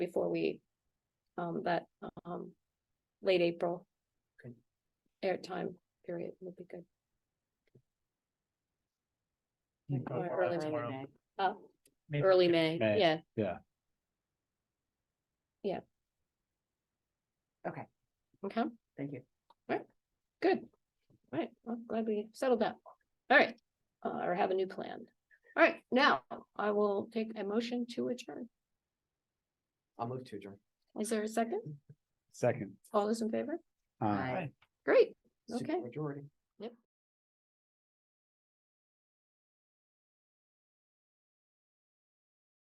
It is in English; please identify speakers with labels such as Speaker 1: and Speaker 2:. Speaker 1: before we, um, that, um, late April.
Speaker 2: Okay.
Speaker 1: Airtime period would be good.
Speaker 2: Mm,
Speaker 1: Or
Speaker 2: uh,
Speaker 1: early
Speaker 2: tomorrow.
Speaker 3: May.
Speaker 1: Uh,
Speaker 2: Maybe
Speaker 1: early
Speaker 2: we
Speaker 1: May,
Speaker 4: May,
Speaker 1: yeah.
Speaker 4: yeah.
Speaker 1: Yeah.
Speaker 3: Okay.
Speaker 1: Okay,
Speaker 3: Thank you.
Speaker 1: good. All right, well, glad we settled that. All right, uh, or have a new plan. All right, now I will take a motion to adjourn.
Speaker 2: I'll move to adjourn.
Speaker 1: Is there a second?
Speaker 4: Second.
Speaker 1: All those in favor?
Speaker 4: Uh,
Speaker 3: Bye.
Speaker 2: Aye.
Speaker 1: Great, Okay.
Speaker 2: Majority.